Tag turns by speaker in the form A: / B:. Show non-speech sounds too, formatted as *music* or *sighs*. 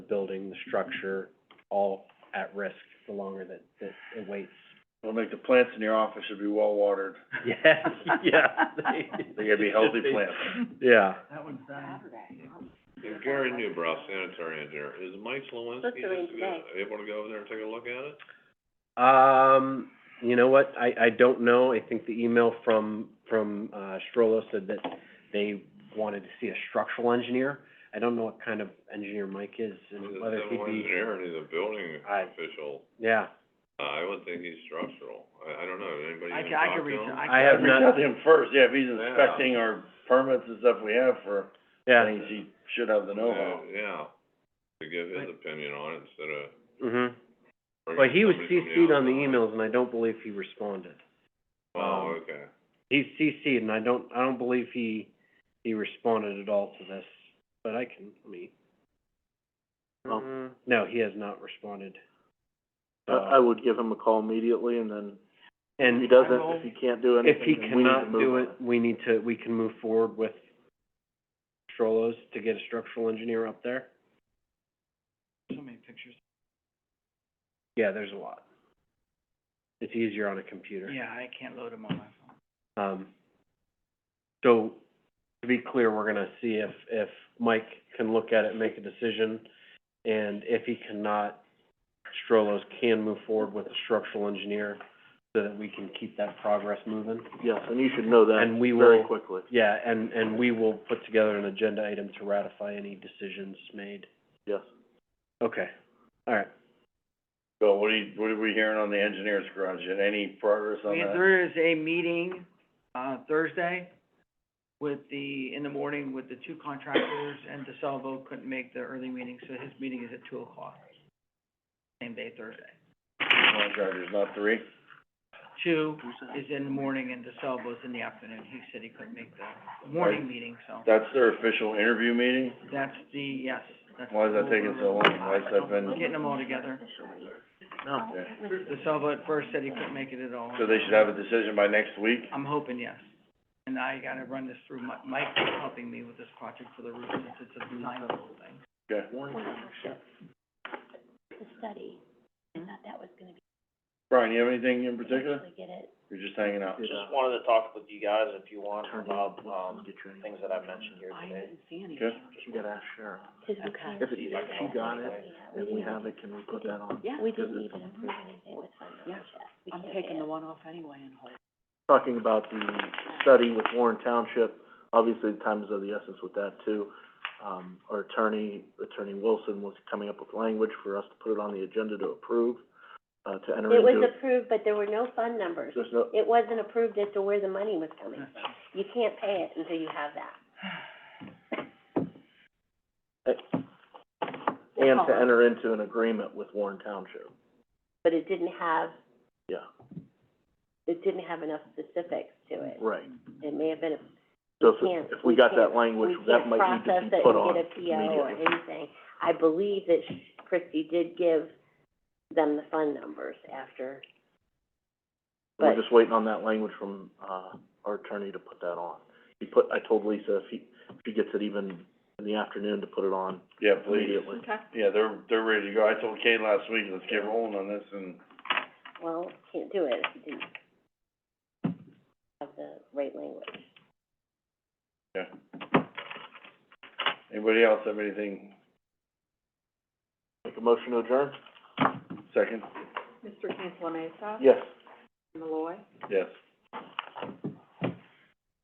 A: building, the structure, all at risk the longer that, that it waits.
B: We'll make the plants in your office should be well watered.
A: Yes, *laughs* yeah.
B: They gotta be healthy plants.
A: Yeah.
C: That one's done.
D: Yeah, Gary Newbrow, sanitary engineer, is Mike Slawinski
E: That's the
D: just
E: range
D: go- able to go over there and take a look at it?
A: Um, you know what, I, I don't know, I think the email from, from, uh, Strollo said that they wanted to see a structural engineer. I don't know what kind of engineer Mike is
D: He's
A: and
D: a
A: whether he'd
D: civil
A: be,
D: engineer and he's a building
A: I-
D: official,
A: yeah,
D: uh, I would think he's structural, I, I don't know, did anybody
C: I
D: even
C: ca- I
D: talk
C: could
D: to
C: reach-
D: him?
A: I
C: I
A: have
B: Reach out
A: not,
B: to him first, yeah, if he's
D: Yeah.
B: inspecting our permits and stuff we have for
A: yeah,
B: things, he should have the know-how.
D: Yeah, Yeah, to give his opinion on it instead of
A: mhm.
D: bringing
A: Well, he was
D: somebody from the
A: CC'd on the
D: outside.
A: emails and I don't believe he responded.
D: Oh,
A: um,
D: okay,
A: He's CC'd and I don't, I don't believe he, he responded at all to this, but I can, let me.
B: Oh.
A: Mm, No, he has not responded. So-
B: would give him a call immediately and then
A: And
C: if he
B: can't do
A: if he cannot do it, we need to, we can move forward with Strollo's to get a structural engineer up there.
C: So many pictures.
A: Yeah, there's a lot. It's easier on a computer.
C: Yeah, I can't load them on my phone.
A: Um, so, to be clear, we're gonna see if, if Mike can look at it, make a decision, and if he cannot, Strollo's can move forward with a structural engineer so that we can keep that progress moving.
B: Yes, and you should know
A: And we will,
B: quickly.
A: yeah, and, and we will put together an agenda item to ratify any decisions made.
B: Yes.
A: Okay, all right.
B: So what are you, what are we hearing on the engineer's garage? Yet Any progress on
C: We-
B: that?
C: There is a meeting, uh, Thursday with the, in the morning with the two contractors, and DeSalvo couldn't make the early meeting, so his meeting is at two o'clock, same day, Thursday.
B: Contractors, not three?
C: Two is in the morning, and DeSalvo's in the afternoon. He said he couldn't make the morning meeting, so
B: That's their official interview meeting?
C: that's the, yes, that's.
B: Why is that taking so long? Why has that been?
C: Getting them all together.
B: Yeah.
C: DeSalvo at first said he couldn't make it at all.
B: So they should have a decision by next week?
C: I'm hoping, yes. And I gotta run this through, Mi- Mike is helping me with this project for the roof, since it's a design level thing.
B: Okay.
E: The study, I thought that was gonna be,
B: Brian, you have anything in particular?
E: actually get it.
B: You're just hanging out?
F: Just wanted to talk with you guys, if you want, about, um, things that I've mentioned here
E: I
F: today.
E: didn't see
B: Okay.
E: You gotta ask Sharon. If it, if she got it, and we have it, can we put that on? Yeah. We didn't even approve anything with fund balance yet. We can't add.
G: one off anyway and hold.
H: talking about the study with Warren Township, obviously the time is of the essence with that too. Um, our attorney, Attorney Wilson, was coming up with language for us to put it on the agenda to approve, uh, to enter
E: It was
H: into.
E: approved, but there were no fund numbers.
H: There's no,
E: It wasn't approved as to where the money was coming
C: *laughs*
E: *sighs* from. You can't pay it until you have that.
H: and to enter into an agreement with Warren Township,
E: But it didn't have,
H: yeah,
E: it didn't have enough specifics to it.
H: right.
E: It may have been a
H: So if,
E: can't-
H: if
E: we
H: we got
E: can't-
H: that language, that might need to be put on
E: We can't process it and get a PO or
H: immediately.
E: anything. I believe that sh- Christie did give them the fund numbers after,
H: We're
E: but-
H: just waiting on that language from, uh, our attorney to put that on. He put, I told Lisa if he, if he gets it even in the afternoon to put it on
B: Yeah, please.
H: immediately.
B: Yeah, they're, they're ready to go. I told Kay last week, let's get rolling on this and
E: well, can't do it if you didn't have the right language.
B: anybody else have anything?
H: Make a motion to adjourn?
B: Second?
G: Mr. Cantala Mesa,
H: Yes.
G: Malloy,
B: Yes.